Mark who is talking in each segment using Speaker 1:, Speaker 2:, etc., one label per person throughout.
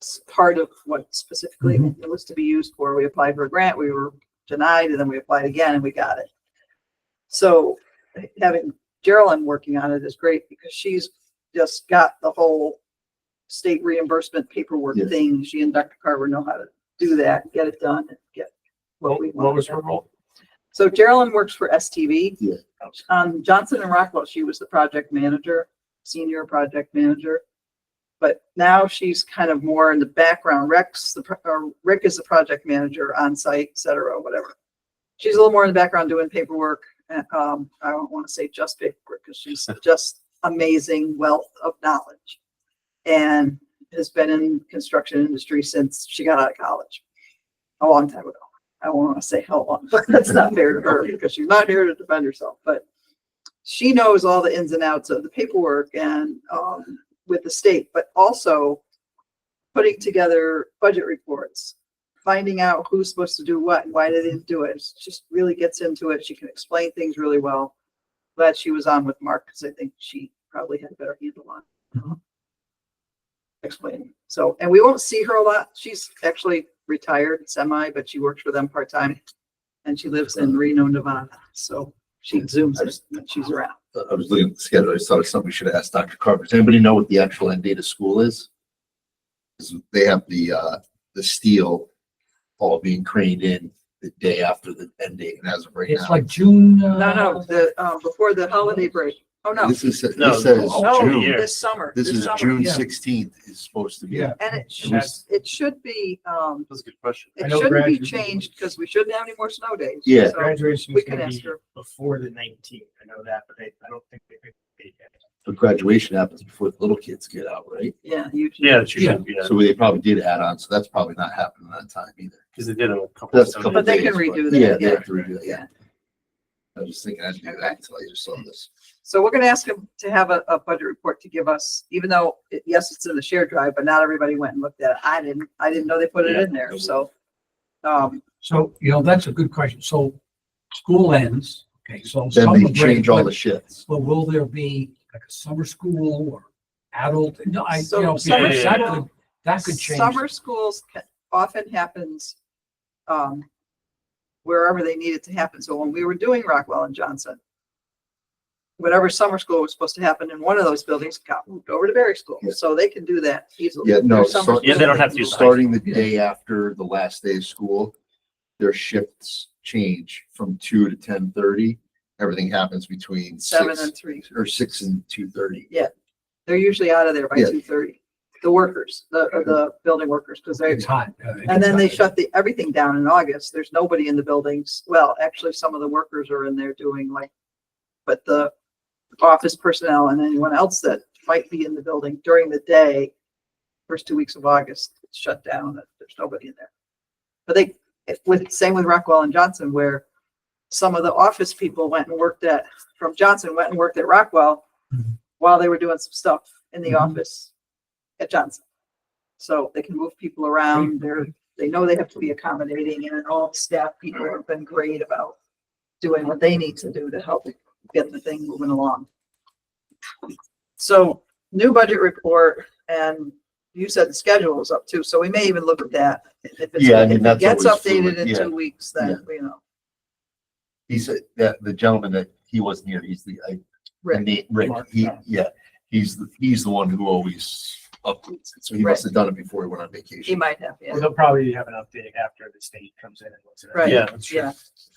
Speaker 1: that's part of what specifically it was to be used for. We applied for a grant, we were denied, and then we applied again and we got it. So having Geraldine working on it is great because she's just got the whole state reimbursement paperwork
Speaker 2: Yes.
Speaker 1: thing. She and Dr. Carver know how to do that, get it done, and get what we
Speaker 3: What
Speaker 1: want.
Speaker 3: was her role?
Speaker 1: So Geraldine works for STV.
Speaker 2: Yeah.
Speaker 1: Um, Johnson and Rockwell, she was the project manager, senior project manager. But now she's kind of more in the background. Rex, the, pro- or Rick is the project manager on site, et cetera, whatever. She's a little more in the background doing paperwork. And, um, I don't want to say just paperwork because she's just amazing wealth of knowledge. And has been in construction industry since she got out of college. A long time ago. I won't want to say how long, but that's not fair to her because she's not here to defend herself, but she knows all the ins and outs of the paperwork and, um, with the state, but also putting together budget reports, finding out who's supposed to do what and why they didn't do it. It's Just really gets into it. She can explain things really well. Glad she was on with Mark because I think she probably had a better handle on explain. So, and we won't see her a lot. She's actually retired semi, but she works for them part-time. And she lives in Reno, Nevada, so she zooms us when she's around.
Speaker 2: I was looking at the schedule, I saw something we should ask Dr. Carver. Does anybody know what the actual end date of school is? 'Cause They have the, uh, the steel all being craned in the day after the end date and as of right
Speaker 3: It's
Speaker 2: now.
Speaker 3: like June.
Speaker 1: No, no, the, uh, before the holiday break. Oh, no.
Speaker 2: This is,
Speaker 3: No,
Speaker 2: this says
Speaker 1: No,
Speaker 2: June,
Speaker 3: yeah.
Speaker 1: this summer.
Speaker 2: this is
Speaker 1: summer.
Speaker 2: June
Speaker 3: yeah.
Speaker 2: sixteenth is supposed to be.
Speaker 3: Yeah.
Speaker 1: And it should,
Speaker 3: that's-
Speaker 1: it should be, um,
Speaker 4: That's a good question.
Speaker 3: I
Speaker 1: it
Speaker 3: know
Speaker 1: shouldn't be
Speaker 3: graduation-
Speaker 1: changed because we shouldn't have any more snow days.
Speaker 2: Yeah.
Speaker 1: So
Speaker 3: Graduation
Speaker 1: We
Speaker 3: is
Speaker 1: can
Speaker 3: gonna
Speaker 1: ask
Speaker 3: be
Speaker 1: her.
Speaker 3: before the nineteenth. I know that, but I, I don't think they could. be yet.
Speaker 2: But graduation happens before the little kids get out, right?
Speaker 1: Yeah, usually.
Speaker 4: Yeah, she should, yeah,
Speaker 2: So they probably did add on, so that's probably not happening at that time either.
Speaker 4: because they did it a couple.
Speaker 2: That's a
Speaker 4: of
Speaker 2: couple
Speaker 1: But
Speaker 4: times.
Speaker 1: they can
Speaker 2: days,
Speaker 1: redo
Speaker 2: but- Yeah,
Speaker 1: that,
Speaker 2: they
Speaker 1: yeah.
Speaker 2: have to redo that,
Speaker 1: Yeah.
Speaker 2: yeah. I was just thinking I'd do that until I just saw this.
Speaker 1: So we're gonna ask them to have a, a budget report to give us, even though, it- yes, it's in the shared drive, but not everybody went and looked at it. I didn't, I didn't know they put it in there, so. Um,
Speaker 3: So, you know, that's a good question. So school ends, okay, so.
Speaker 2: Then
Speaker 3: summer
Speaker 2: they
Speaker 3: break,
Speaker 2: change all the
Speaker 3: but-
Speaker 2: shifts.
Speaker 3: But will there be like a summer school or adult? No, I,
Speaker 1: So
Speaker 3: you know,
Speaker 1: summer
Speaker 3: because that
Speaker 1: school-
Speaker 3: could, that could change.
Speaker 1: summer schools ca- often happens, um, wherever they need it to happen. So when we were doing Rockwell and Johnson, whatever summer school was supposed to happen in one of those buildings got moved over to Berry School,
Speaker 2: Yeah.
Speaker 1: so they can do that easily.
Speaker 2: Yeah, no,
Speaker 1: Their summer
Speaker 2: so-
Speaker 1: school-
Speaker 4: Yeah, they don't have to do
Speaker 1: can
Speaker 4: start-
Speaker 2: Starting the day after the last day of school, their shifts change from two to ten thirty. Everything happens between
Speaker 1: do Seven
Speaker 2: six
Speaker 1: and three.
Speaker 2: or six and two thirty.
Speaker 1: They're usually out of there by
Speaker 2: Yeah.
Speaker 1: two thirty. The workers, the, uh, the building workers, because they,
Speaker 3: It's hot. uh, it
Speaker 1: and
Speaker 3: gets
Speaker 1: then they
Speaker 3: hot.
Speaker 1: shut the, everything down in August. There's nobody in the buildings. Well, actually, some of the workers are in there doing like, but the office personnel and anyone else that might be in the building during the day, first two weeks of August, it's shut down. There's nobody in there. But they, if- with, same with Rockwell and Johnson, where some of the office people went and worked at, from Johnson, went and worked at Rockwell
Speaker 3: Mhm.
Speaker 1: while they were doing some stuff in the
Speaker 3: Mhm.
Speaker 2: Mm-hmm.
Speaker 1: office at Johnson. So they can move people around. They're, they know they have to be accommodating and all the staff people have been great about doing what they need to do to help get the thing moving along. So new budget report and you said the schedule is up too, so we may even look at that. If it's-
Speaker 2: Yeah, I mean,
Speaker 1: if it
Speaker 2: that's
Speaker 1: Gets
Speaker 2: always
Speaker 1: updated
Speaker 2: fluid,
Speaker 1: in
Speaker 2: yeah.
Speaker 1: two weeks, then, you know,
Speaker 2: He said that the gentleman that he wasn't here, he's the, I,
Speaker 1: Rick.
Speaker 2: Nate- Rick,
Speaker 3: Mark,
Speaker 2: he,
Speaker 3: yeah.
Speaker 2: yeah, he's the, he's the one who always updates it. So he
Speaker 1: Right.
Speaker 2: must have done it before he went on
Speaker 1: He
Speaker 2: vacation.
Speaker 1: might have, yeah,
Speaker 3: They'll probably have an update after the state comes in and looks at it.
Speaker 1: Right.
Speaker 4: Yeah.
Speaker 1: yeah,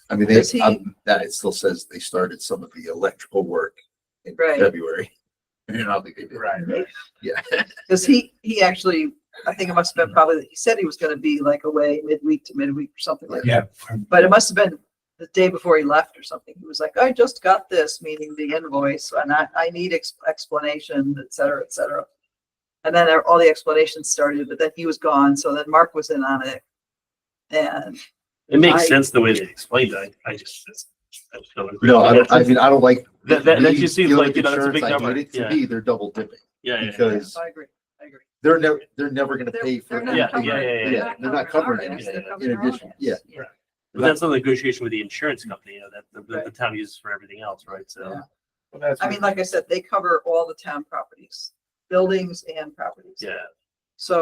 Speaker 2: I mean, they,
Speaker 1: Does he-
Speaker 2: um, that it still says they started some of the electrical work in
Speaker 1: Right.
Speaker 2: February. And I don't think they did.
Speaker 3: Right.
Speaker 2: Yeah.
Speaker 1: because he, he actually, I think it must have been probably, he said he was gonna be like away midweek to midweek or something like that.
Speaker 3: Yeah.
Speaker 1: But it must have been the day before he left or something. He was like, I just got this, meaning the invoice, and I, I need ex- explanation, et cetera, et cetera. And then all the explanations started, but then he was gone, so then Mark was in on it. And
Speaker 4: It
Speaker 1: I-
Speaker 4: makes sense the way they explained it. I I just. that's- that's so agreed.
Speaker 2: No, I don't, I mean, I don't like.
Speaker 4: That, that, that
Speaker 2: me
Speaker 4: just seems
Speaker 2: dealing
Speaker 4: like,
Speaker 2: with
Speaker 4: you know, that's a
Speaker 2: insurance,
Speaker 4: big
Speaker 2: I
Speaker 4: number.
Speaker 2: need it To
Speaker 4: Yeah,
Speaker 2: me, they're double dipping
Speaker 4: yeah, yeah.
Speaker 1: yeah,
Speaker 2: because
Speaker 1: I agree, I agree.
Speaker 2: they're never, they're never gonna
Speaker 1: They're-
Speaker 2: pay for.
Speaker 1: they're not
Speaker 4: Yeah,
Speaker 2: anything.
Speaker 4: yeah, yeah, yeah.
Speaker 2: They're not covering
Speaker 1: ours,
Speaker 2: anything.
Speaker 1: they're covering
Speaker 2: In
Speaker 1: our own
Speaker 2: addition,
Speaker 1: ass.
Speaker 2: yeah.
Speaker 4: But that's not a negotiation with the insurance company, you know, that the- that the
Speaker 1: Right.
Speaker 4: town uses for everything else, right? So.
Speaker 1: Yeah. I mean, like I said, they cover all the town properties, buildings and properties.
Speaker 4: Yeah,